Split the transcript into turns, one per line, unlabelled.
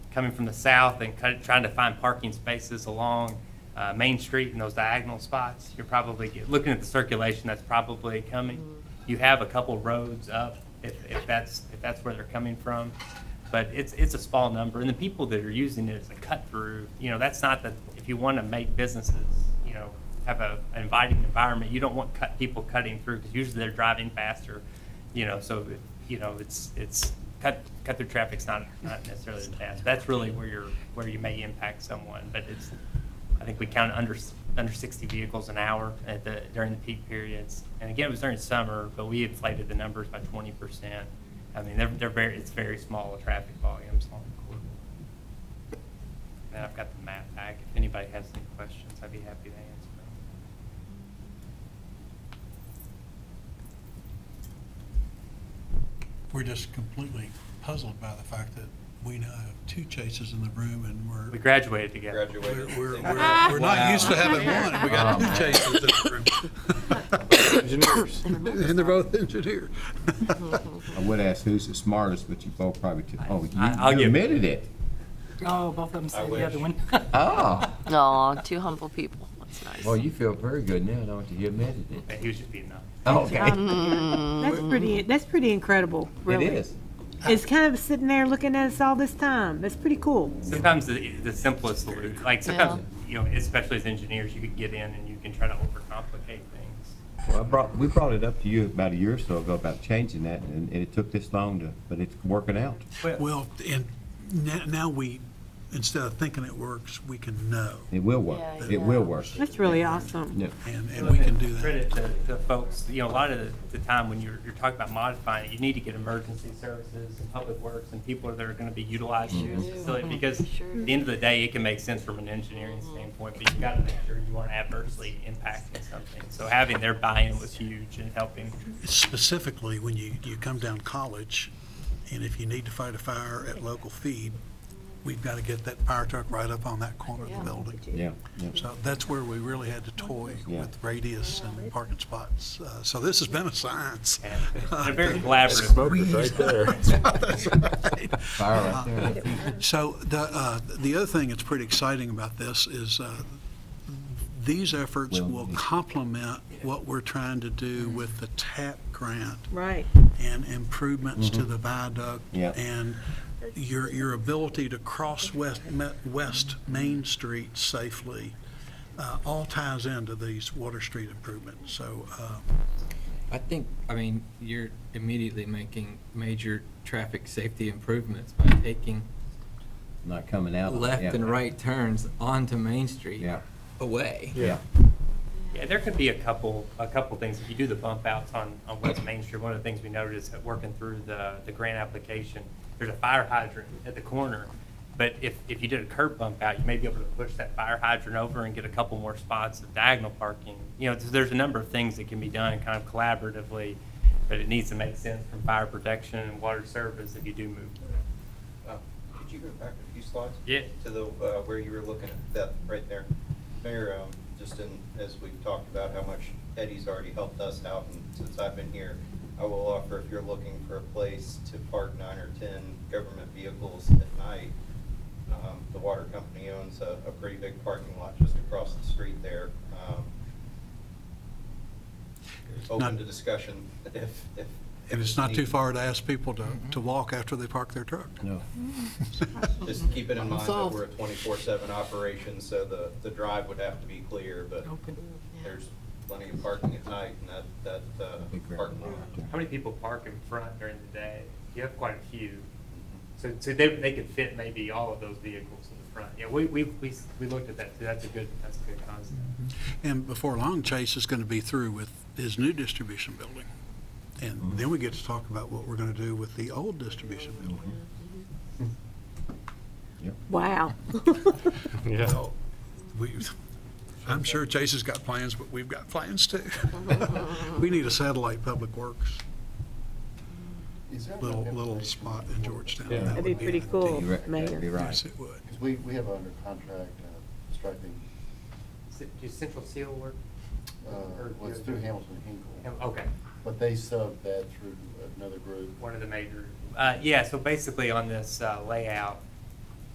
coming from the south and kind of trying to find parking spaces along uh, Main Street in those diagonal spots, you're probably, get- looking at the circulation that's probably coming. You have a couple roads up, if, if that's, if that's where they're coming from. But it's, it's a small number, and the people that are using it as a cut-through, you know, that's not the, if you want to make businesses, you know, have a an inviting environment, you don't want cut, people cutting through, because usually they're driving faster, you know, so, it- you know, it's, it's, cut, cut through traffic's not, not necessarily the task. That's really where you're, where you may impact someone, but it's, I think we counted under, s- under 60 vehicles an hour at the, during the peak periods. And again, it was during summer, but we inflated the numbers by 20%. I mean, they're, they're very, it's very small traffic volumes on the corridor. And I've got the map back. If anybody has any questions, I'd be happy to answer them.
We're just completely puzzled by the fact that we now have two chases in the room and
We
we're,
graduated together.
we're,
Graduated.
we're, we're- we're not
Wow.
used to having one and we got
Oh,
two
man.
chases in the
Engineers.
room. And they're both engineers.
I would ask who's the smartest, but you both probably, t- oh,
I- I'll
you- you
give-
admitted it.
Oh, both of them
I
said
wish.
the other one.
Oh,
No, two humble people. That's nice.
well, you feel very good now, don't you? You admitted it.
But he was just being up.
Okay,
That's pretty, that's pretty incredible,
Mm-hmm. it
really.
is.
It's kind of sitting there looking at us all this time. That's pretty cool.
Sometimes the, the simplest solution, like sometimes, you know, especially as engineers, you can get in and you can try to overcomplicate things.
Well, I brought, we brought it up to you about a year or so ago about changing that, and and it took this long to, but it's working out.
Well, and now, now we, instead of thinking it works, we can know.
It will work.
Yeah,
It
yeah.
will work.
That's really awesome.
Yeah.
And, and we can do that.
Credit to, to folks, you know, a lot of the- the time when you're, you're talking about modifying it, you need to get emergency services and public works and people that are gonna be utilizing this facility, because at the end of the day, it can make sense from an engineering standpoint, but you gotta make sure you aren't adversely impacting something. So having their buy-in was huge and helping
Specifically, when you, you come down college, and if you need to fight a fire at local feed, we've got to get that fire truck right up on that corner of the building.
Yeah, yeah.
So that's where we really had to toy
Yeah.
with radius and parking spots. Uh, So this has been a science.
and they're very collaborative.
right there.
Fire right there.
So the, uh, the other thing that's pretty exciting about this is uh, these efforts
Well,
will
it's-
complement what we're trying to do with the TAP grant
Right.
and improvements to the viaduct.
Yeah.
And your, your ability to cross West, Ma- West Main Street safely, uh, all ties into these Water Street improvements. So, uh,
I think, I mean, you're immediately making major traffic safety improvements by taking
Not coming out. Yeah.
left and right turns onto Main Street
Yeah,
away.
yeah.
Yeah, there could be a couple, a couple things. If you do the bump outs on, on West Main Street, one of the things we noticed at working through the, the grant application, there's a fire hydrant at the corner. But if, if you did a curb bump out, you may be able to push that fire hydrant over and get a couple more spots of diagonal parking. You know, there's a number of things that can be done kind of collaboratively, but it needs to make sense from fire protection and water service if you do move.
Uh, Could you go back a few slides?
Yeah.
To the, uh, where you were looking at that right there. Mayor, um, just in, as we've talked about how much Eddie's already helped us out and since I've been here, I will offer if you're looking for a place to park nine or 10 government vehicles at night, um, the water company owns a, a pretty big parking lot just across the street there. Um, Open
Not-
to discussion if, if.
and it's Mm-hmm. not too
if-
far to ask people to, to walk after they park their truck.
No.
Just keep it in mind that we're a twenty-four seven operation, so the, the drive would have to be clear, but there's plenty of parking at night and that, that, uh,
Big red
parking
lot
lot.
right there.
How many people park in front during the day? You have quite a few. So, so they, they could fit maybe all of those vehicles in the front. Yeah, we, we, we, we looked at that too. That's a good, that's a good concept.
And before long, Chase is going to be through with his new distribution building. And then we get to talk about what we're going to do with the old distribution building.
Mm-hmm.
Wow.
Well, we, I'm sure Chase has got plans, but we've got plans too. We need a satellite public works,
Is there
little,
enough
little
information?
spot in Georgetown.
Yeah.
That
That'd be
would
pretty
ideal.
cool,
You're right. That'd be
Mayor.
right.
Yes, it would.
Because we, we have under contract uh, striping,
C- Do Central Seal work?
uh, well, it's through Hamilton Hinkle,
Okay,
but they sub that through another group.
one of the major. Uh, yeah, so basically on this uh, layout,